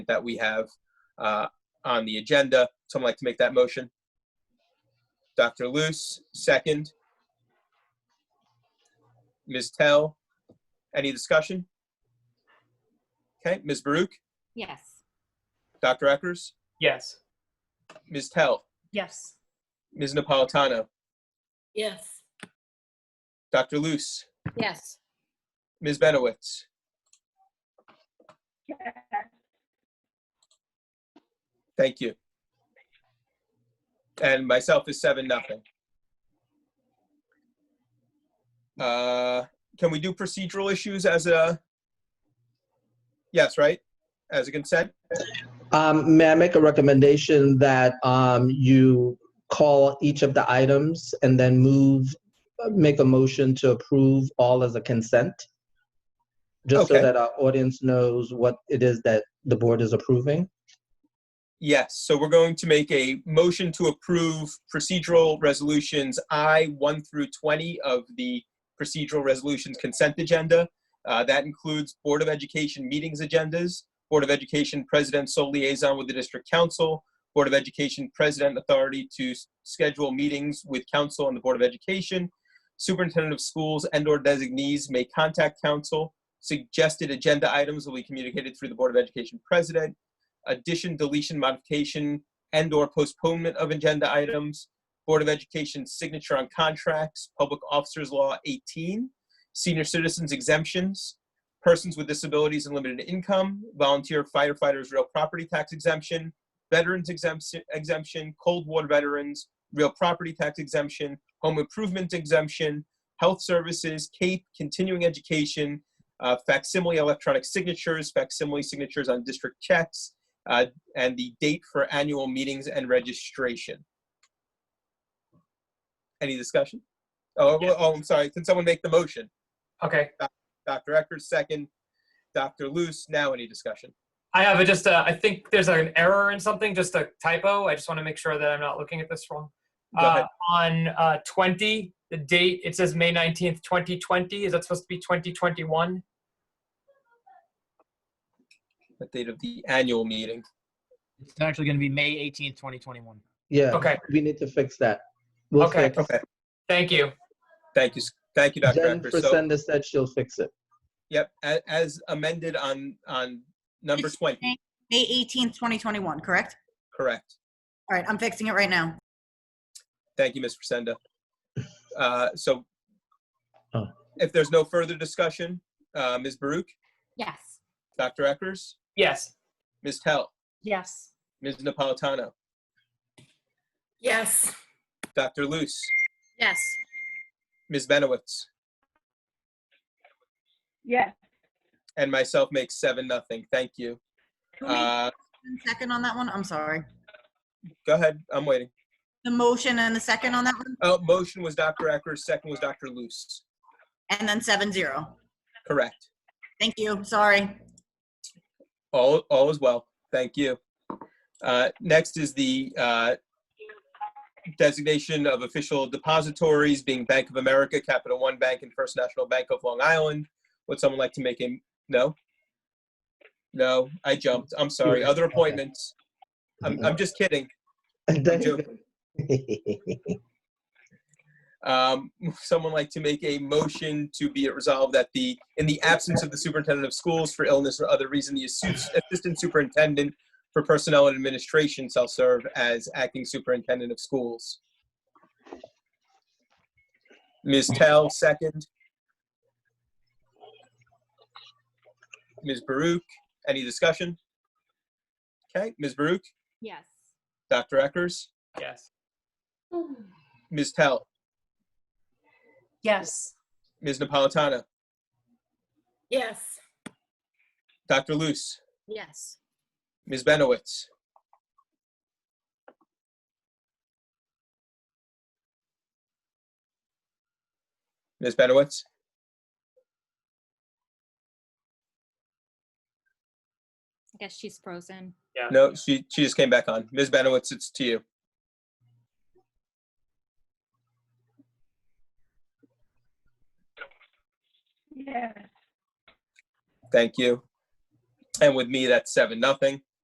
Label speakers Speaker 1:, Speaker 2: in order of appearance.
Speaker 1: that we have uh, on the agenda. Someone like to make that motion? Dr. Luce, second. Ms. Tell, any discussion? Okay, Ms. Baruch,
Speaker 2: Yes.
Speaker 1: Dr. Eckers,
Speaker 3: Yes.
Speaker 1: Ms. Tell,
Speaker 2: Yes.
Speaker 1: Ms. Napolitano,
Speaker 4: Yes.
Speaker 1: Dr. Luce,
Speaker 4: Yes.
Speaker 1: Ms. Benowitz. Thank you. And myself is seven, nothing. Uh, Can we do procedural issues as a? Yes, right? As a consent?
Speaker 5: Um, may I make a recommendation that um, you call each of the items and then move, make a motion to approve all as a consent? Just so
Speaker 1: Okay.
Speaker 5: that our audience knows what it is that the board is approving.
Speaker 1: Yes, so we're going to make a motion to approve procedural resolutions I, 1 through 20 of the procedural resolutions consent agenda. Uh, That includes Board of Education meetings agendas, Board of Education President sole liaison with the District Council, Board of Education President authority to s- schedule meetings with Council and the Board of Education, Superintendent of Schools and/or designees may contact Council. Suggested agenda items will be communicated through the Board of Education President addition, deletion, modification, and/or postponement of agenda items, Board of Education signature on contracts, Public Officers Law 18, senior citizens exemptions, persons with disabilities and limited income, volunteer firefighters real property tax exemption, veterans exemption, exemption, Cold War veterans, real property tax exemption, home improvement exemption, health services, CAPE, continuing education, uh, facsimile electronic signatures, facsimile signatures on district checks, uh, and the date for annual meetings and registration. Any discussion? Oh, well, oh, I'm sorry. Can someone make the motion?
Speaker 3: Okay.
Speaker 1: Dr. Eckers, second. Dr. Luce, now any discussion?
Speaker 3: I have a, just a, I think there's an error in something, just a typo. I just want to make sure that I'm not looking at this wrong.
Speaker 1: Go ahead.
Speaker 3: Uh, on uh, 20, the date, it says May 19th, 2020. Is that supposed to be 2021?
Speaker 1: The date of the annual meeting.
Speaker 6: It's actually going to be May 18th, 2021.
Speaker 5: Yeah.
Speaker 3: Okay.
Speaker 5: We need to fix that. We'll
Speaker 3: Okay.
Speaker 5: fix-
Speaker 1: Okay,
Speaker 3: Thank you.
Speaker 1: thank you, s- thank you, Dr.
Speaker 5: Jen
Speaker 1: Eckers. So,
Speaker 5: Frisenda said she'll fix it.
Speaker 1: yep, a- as amended on, on number
Speaker 4: It's
Speaker 1: 20,
Speaker 4: May 18th, 2021, correct?
Speaker 1: correct.
Speaker 4: All right, I'm fixing it right now.
Speaker 1: Thank you, Ms. Frisenda. Uh, So
Speaker 5: Oh.
Speaker 1: if there's no further discussion, uh, Ms. Baruch,
Speaker 2: Yes.
Speaker 1: Dr. Eckers,
Speaker 3: Yes.
Speaker 1: Ms. Tell,
Speaker 2: Yes.
Speaker 1: Ms. Napolitano,
Speaker 4: Yes.
Speaker 1: Dr. Luce,
Speaker 4: Yes.
Speaker 1: Ms. Benowitz,
Speaker 7: Yes,
Speaker 1: and myself makes seven nothing. Thank you.
Speaker 4: Who made
Speaker 1: Uh,
Speaker 4: the second on that one? I'm sorry.
Speaker 1: go ahead. I'm waiting.
Speaker 4: The motion and the second on that one,
Speaker 1: Oh, motion was Dr. Eckers, second was Dr. Luce.
Speaker 4: and then seven zero.
Speaker 1: Correct.
Speaker 4: Thank you, sorry.
Speaker 1: All, all is well. Thank you. Uh, next is the uh, designation of official depositories being Bank of America, Capital One Bank, and First National Bank of Long Island. Would someone like to make a no? No, I jumped. I'm sorry. Other appointments. I'm, I'm just kidding. Um, someone like to make a motion to be it resolved that the, in the absence of the superintendent of schools for illness or other reason, the assu- assistant superintendent for personnel and administration shall serve as acting superintendent of schools. Ms. Tell, second. Ms. Baruch, any discussion? Okay, Ms. Baruch,
Speaker 2: Yes.
Speaker 1: Dr. Eckers,
Speaker 3: Yes.
Speaker 1: Ms. Tell,
Speaker 2: Yes.
Speaker 1: Ms. Napolitano,
Speaker 4: Yes.
Speaker 1: Dr. Luce.
Speaker 2: Yes.
Speaker 1: Ms. Benowitz. Ms. Benowitz?
Speaker 2: I guess she's frozen.
Speaker 1: No, she, she just came back on. Ms. Benowitz, it's to you.
Speaker 7: yes,
Speaker 1: Thank you. And with me, that's seven, nothing.